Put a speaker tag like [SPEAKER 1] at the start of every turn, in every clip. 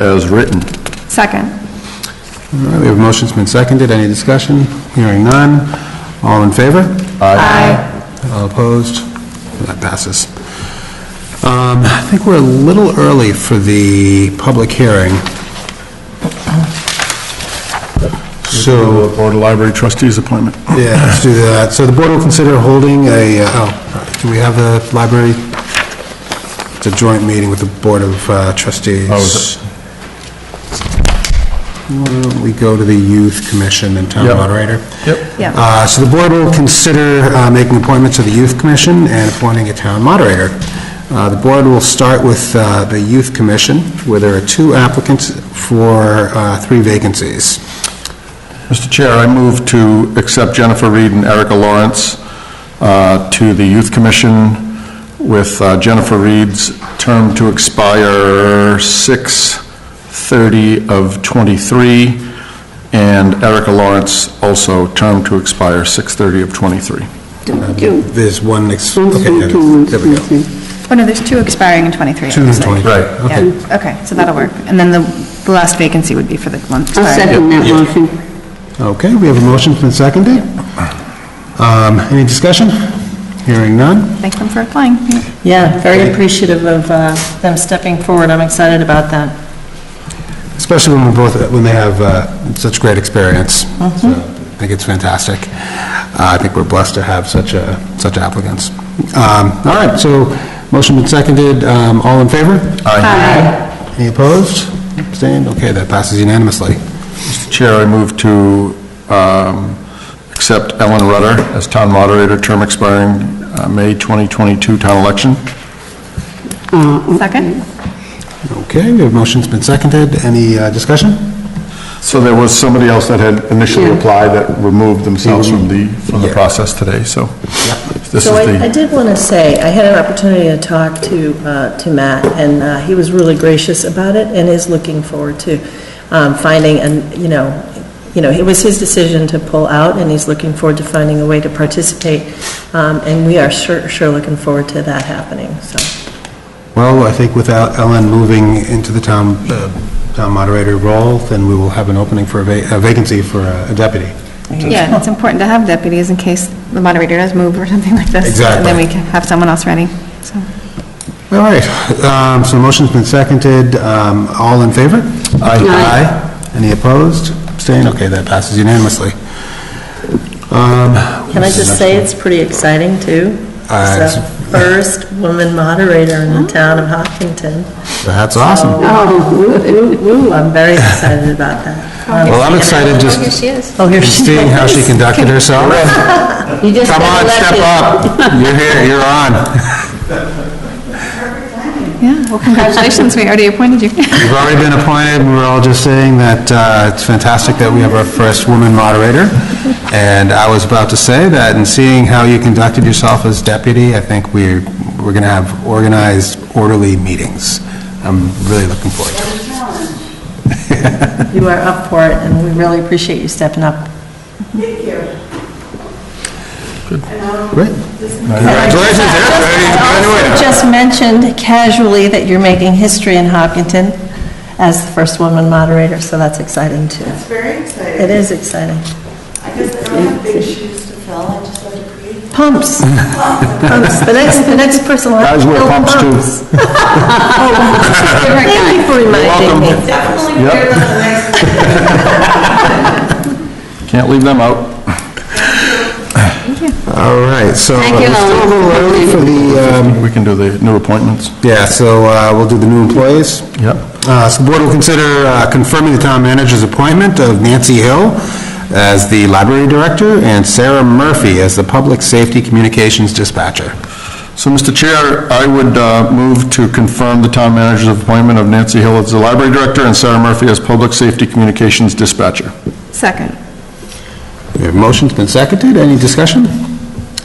[SPEAKER 1] as written.
[SPEAKER 2] Second.
[SPEAKER 3] All right, we have motions been seconded, any discussion? Hearing none, all in favor?
[SPEAKER 2] Aye.
[SPEAKER 3] All opposed? That passes. Um, I think we're a little early for the public hearing. So,
[SPEAKER 1] Board of Library Trustees appointment.
[SPEAKER 3] yeah, let's do that. So the board will consider holding a, uh, oh, do we have a library? It's a joint meeting with the Board of uh, Trustees.
[SPEAKER 1] Oh, is
[SPEAKER 3] Why don't we go to the Youth Commission and Town
[SPEAKER 1] Yep.
[SPEAKER 3] Moderator?
[SPEAKER 1] Yep.
[SPEAKER 2] Yep.
[SPEAKER 3] Uh, So the board will consider uh, making appointments to the Youth Commission and appointing a town moderator. Uh, The board will start with uh, the Youth Commission, where there are two applicants for uh, three vacancies.
[SPEAKER 1] Mr. Chair, I move to accept Jennifer Reed and Erica Lawrence uh, to the Youth Commission with uh, Jennifer Reed's term to expire 6/30 of '23, and Erica Lawrence also term to expire 6/30 of '23.
[SPEAKER 4] Two.
[SPEAKER 3] There's one, ex-
[SPEAKER 4] One's
[SPEAKER 3] okay,
[SPEAKER 4] from
[SPEAKER 3] there
[SPEAKER 4] two, one's
[SPEAKER 3] there we go.
[SPEAKER 4] from three.
[SPEAKER 2] Oh, no, there's two expiring in '23.
[SPEAKER 3] Two and 20.
[SPEAKER 1] Right.
[SPEAKER 2] Yeah,
[SPEAKER 3] Okay.
[SPEAKER 2] okay, so that'll work. And then the, the last vacancy would be for the one.
[SPEAKER 4] I'll Oh, second that motion.
[SPEAKER 3] Okay, we have a motion, been seconded. Um, Any discussion? Hearing none?
[SPEAKER 2] Thank them for applying. Yeah.
[SPEAKER 5] Yeah, very appreciative of uh, them stepping forward. I'm excited about that.
[SPEAKER 3] Especially when we both, when they have uh, such great experience. So, I think it's fantastic. Uh, I think we're blessed to have such, uh, such applicants. Um, All right, so motion been seconded, Um, all in favor? Aye. Any opposed? Abstained? Okay, that passes unanimously.
[SPEAKER 1] Chair, I move to um, accept Ellen Rutter as town moderator, term expiring uh, May 2022 town election.
[SPEAKER 2] Second?
[SPEAKER 3] Okay, we have motion's been seconded, any uh, discussion?
[SPEAKER 1] So there was somebody else that had initially applied that removed themselves from the, from the
[SPEAKER 3] Yeah.
[SPEAKER 1] process today, so this is
[SPEAKER 5] So I I
[SPEAKER 1] the,
[SPEAKER 5] did want to say, I had an opportunity to talk to, uh, to Matt, and uh, he was really gracious about it and is looking forward to um, finding, and, you know, you know, it was his decision to pull out, and he's looking forward to finding a way to participate, um, and we are sure, sure looking forward to that happening, so.
[SPEAKER 3] Well, I think without Ellen moving into the town, uh, town moderator role, then we will have an opening for a va- a vacancy for a a deputy.
[SPEAKER 2] Yeah, and it's important to have deputies in case the moderator does move or something like this. And
[SPEAKER 3] Exactly.
[SPEAKER 2] then we can have someone else ready, so.
[SPEAKER 3] All right, um, so motion's been seconded, um, all in favor? Aye. Aye. Any opposed? Abstained? Okay, that passes unanimously.
[SPEAKER 5] Can I just say, it's pretty exciting, too?
[SPEAKER 3] Uh,
[SPEAKER 5] It's the first woman moderator in the town of Hopkinton.
[SPEAKER 3] That's awesome.
[SPEAKER 4] Oh, woo, woo, woo.
[SPEAKER 5] I'm very excited about that.
[SPEAKER 3] Well, I'm excited
[SPEAKER 6] Here
[SPEAKER 3] just
[SPEAKER 6] she is.
[SPEAKER 5] Oh, here she
[SPEAKER 3] seeing how she conducted herself.
[SPEAKER 4] You just
[SPEAKER 3] Come
[SPEAKER 4] got
[SPEAKER 3] on, step
[SPEAKER 4] elected.
[SPEAKER 3] up. You're here, you're on.
[SPEAKER 2] Yeah, well, congratulations, we already appointed you.
[SPEAKER 3] You've already been appointed, we're all just saying that uh, it's fantastic that we have our first woman moderator. And I was about to say that, and seeing how you conducted yourself as deputy, I think we're, we're going to have organized, orderly meetings. I'm really looking forward to it.
[SPEAKER 5] You are up for it, and we really appreciate you stepping up.
[SPEAKER 3] Great. Congratulations,
[SPEAKER 5] You Just mentioned casually that you're making history in Hopkinton as the first woman moderator, so that's exciting, too.
[SPEAKER 7] It's very exciting.
[SPEAKER 5] It is exciting.
[SPEAKER 7] I guess I don't have big shoes to fill, I just have to create.
[SPEAKER 5] Pumps. Pumps. The next, the next person will have
[SPEAKER 1] Guys
[SPEAKER 5] to
[SPEAKER 1] wear
[SPEAKER 5] fill
[SPEAKER 1] pumps, too.
[SPEAKER 5] pumps. Oh, Thank you for reminding me.
[SPEAKER 7] Definitely wear them the next week.
[SPEAKER 1] can't leave them out.
[SPEAKER 3] All right, so.
[SPEAKER 4] Thank you,
[SPEAKER 3] we're still a little early for the, um,
[SPEAKER 1] We can do the new appointments.
[SPEAKER 3] yeah, so uh, we'll do the new employees.
[SPEAKER 1] Yep.
[SPEAKER 3] Uh, So the board will consider uh, confirming the town manager's appointment of Nancy Hill as the library director and Sarah Murphy as the public safety communications dispatcher.
[SPEAKER 1] So, Mr. Chair, I would uh, move to confirm the town manager's appointment of Nancy Hill as the library director and Sarah Murphy as public safety communications dispatcher.
[SPEAKER 2] Second.
[SPEAKER 3] Your motion's been seconded, any discussion?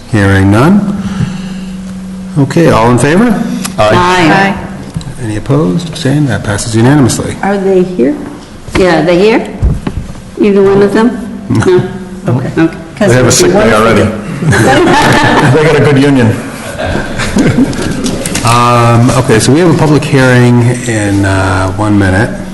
[SPEAKER 3] Hearing none. Okay, all in favor?
[SPEAKER 4] Aye.
[SPEAKER 2] Aye.
[SPEAKER 3] Any opposed, abstained, that passes unanimously.
[SPEAKER 4] Are they here? Yeah, they here? Either one of them? No? Okay.
[SPEAKER 1] They have a sick day already. They got a good union.
[SPEAKER 3] Um, Okay, so we have a public hearing in uh, one minute.